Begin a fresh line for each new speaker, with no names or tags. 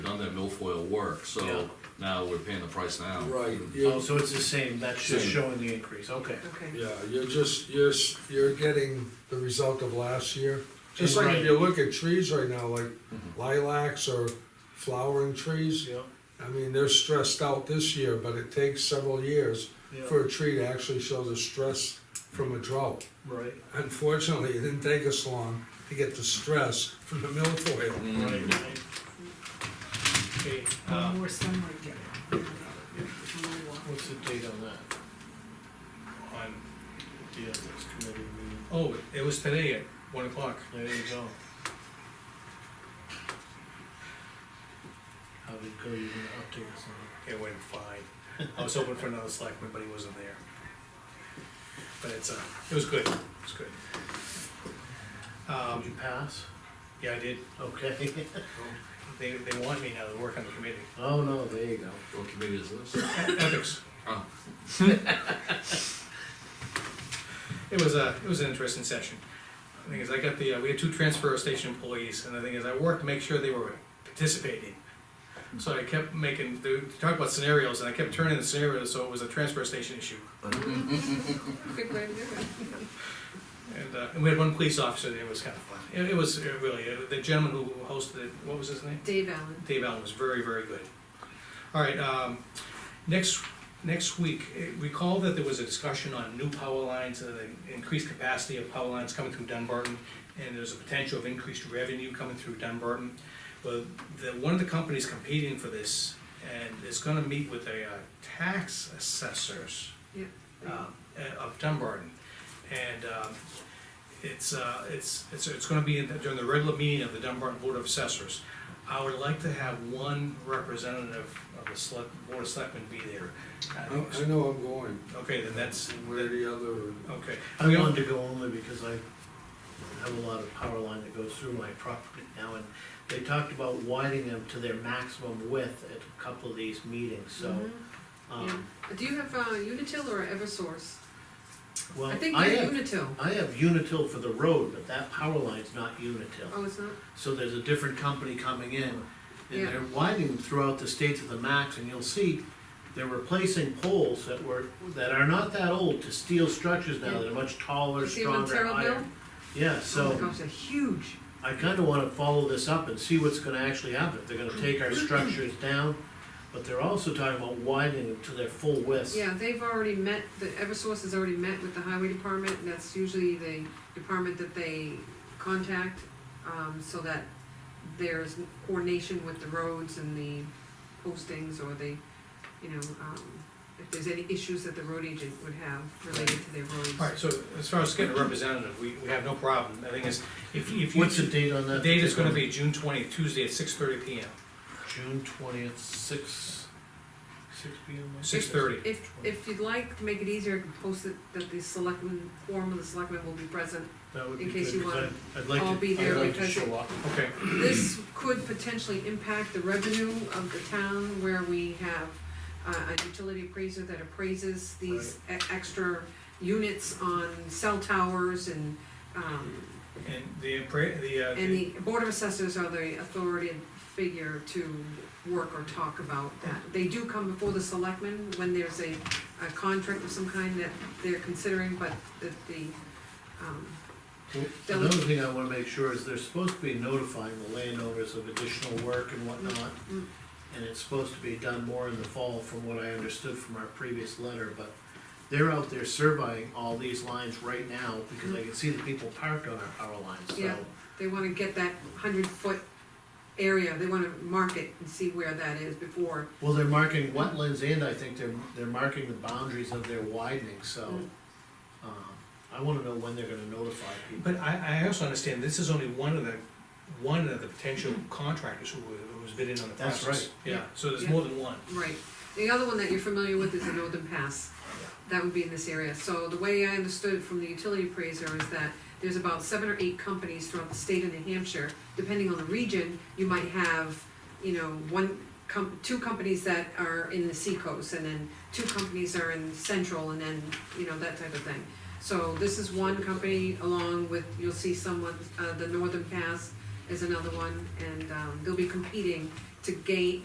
that milfoil work,
Yeah.
so now we're paying the price now.
Right,
Oh,
you,
so it's the same, that's just
Same.
showing the increase, okay.
okay.
yeah, you're just, you're, s- you're getting the result of last year. Just like
Right. Mm-hmm.
if you look at trees right now, like lilacs or flowering trees,
Yeah,
I mean, they're stressed out this year, but it takes several years
yeah,
for a tree to actually show the stress from a drought.
right,
Unfortunately, it didn't take us long to get the stress from the milfoil.
right, right. Okay, uh,
One more sunlight get it. One more walk.
what's the date on that? On the ethics committee meeting,
Oh, it was today at one o'clock.
there you go. How did it go, you gonna update us on
It went fine. I was hoping for another selectman, but he wasn't there. But it's, uh, it was good, it was good.
it? Did you
Um,
pass?
yeah, I did.
Okay.
They, they want me now to work on the committee.
Oh, no, there you go.
What committee is this?
Ethics.
Oh.
It was a, it was an interesting session. The thing is, I got the, uh, we had two transfer station employees, and the thing is, I worked to make sure they were participating. So I kept making, they talked about scenarios, and I kept turning the scenarios, so it was a transfer station issue.
Good way to do it.
And, uh, and we had one police officer there, it was kind of fun. It, it was uh, really, uh, the gentleman who hosted it, what was his name?
Dave Allen,
Dave Allen was very, very good. All right, um, next, next week, eh, recall that there was a discussion on new power lines, uh, the increased capacity of power lines coming through Dunbarton, and there's a potential of increased revenue coming through Dunbarton. Well, the, one of the companies competing for this, and is gonna meet with the, uh, tax assessors
yeah.
uh, of Dunbarton. And um, it's, uh, it's, it's, it's gonna be in the- during the regular meeting of the Dunbarton Board of Assessors. I would like to have one representative of the select, Board of Selectmen be there. I
I,
think-
I know I'm going,
Okay, then that's,
where the other,
okay.
I wanted to go only because I have a lot of power line that goes through my property now, and they talked about widening them to their maximum width at a couple of these meetings, so,
Mhm, yeah.
um,
But Do you have, uh, Unitil or Eversource?
well,
I think
I
they're
have,
Unitil.
I have Unitil for the road, but that power line's not Unitil.
Oh, it's not?
So there's a different company coming in, and
Yeah.
they're widening them throughout the state to the max, and you'll see they're replacing poles that were, that are not that old to steel structures now that are much taller,
You see them on
stronger,
Terra
higher.
Bill?
Yeah,
Oh
so.
my gosh, they're huge.
I kinda wanna follow this up and see what's gonna actually happen, if they're gonna take our structures down, but they're also talking about widening them to their full width.
Yeah, they've already met, the Eversource has already met with the highway department, and that's usually the department that they contact, um, so that there's coordination with the roads and the postings, or the, you know, um, if there's any issues that the road agent would have related to their roads.
All right, so as far as getting a representative, we, we have no problem. The thing is, if, if you.
What's the date on
The
that?
date is gonna be June twentieth, Tuesday at six thirty P M,
June twentieth, six, six P M?
six thirty.
If, if you'd like, to make it easier, I can post it, that the selectmen, form of the selectmen will be present.
That would be
in
good,
case you
because
want
I'd, I'd like to,
all be
I'd
there
like to
because-
show up.
Okay,
This could potentially impact the revenue of the town where we have uh, a utility appraiser that appraises these e- extra units on cell towers and, um,
and the, appra- the, uh,
and the board of assessors are the authority figure to work or talk about that. They do come before the selectmen when there's a, a contract of some kind that they're considering, but that the, um,
Well,
That
Another
would-
thing I wanna make sure is they're supposed to be notifying the landowners of additional work and whatnot.
mm.
And it's supposed to be done more in the fall, from what I understood from our previous letter, but they're out there surveying all these lines right now, because I can see the people parked on our power lines, so.
Yeah. They wanna get that hundred foot area, they wanna mark it and see where that is before,
Well, they're marking wetlands and I think they're, they're marking the boundaries of their widening, so.
Mm.
um, I wanna know when they're gonna notify people.
But I, I also understand this is only one of the, one of the potential contractors who, who was bidding on the
That's
process.
right.
Yeah, so there's more than one.
right. The other one that you're familiar with is the Northern Pass, that would be in this area, so the way I understood it from the utility appraiser is that there's about seven or eight companies throughout the state of New Hampshire, depending on the region, you might have, you know, one, com- two companies that are in the seacoast, and then two companies are in central, and then, you know, that type of thing. So this is one company along with, you'll see someone, uh, the Northern Pass is another one, and, um, they'll be competing to gain,